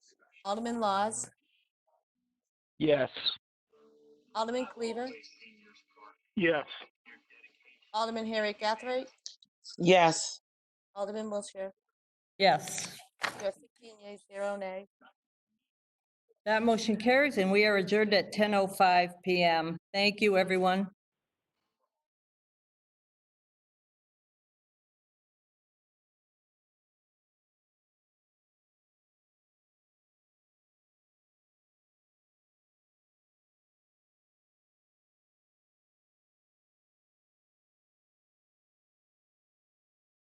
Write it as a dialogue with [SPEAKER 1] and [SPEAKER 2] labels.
[SPEAKER 1] Alderman Laws,
[SPEAKER 2] Yes.
[SPEAKER 1] Alderman Cleaver,
[SPEAKER 2] Yes.
[SPEAKER 1] Alderman Harry Gathright,
[SPEAKER 3] Yes.
[SPEAKER 1] Alderman Wiltshire.
[SPEAKER 4] Yes.
[SPEAKER 1] There are 15 yeas, zero nay.
[SPEAKER 4] oh That motion carries and we are adjourned at 10:05 PM. Thank you, everyone.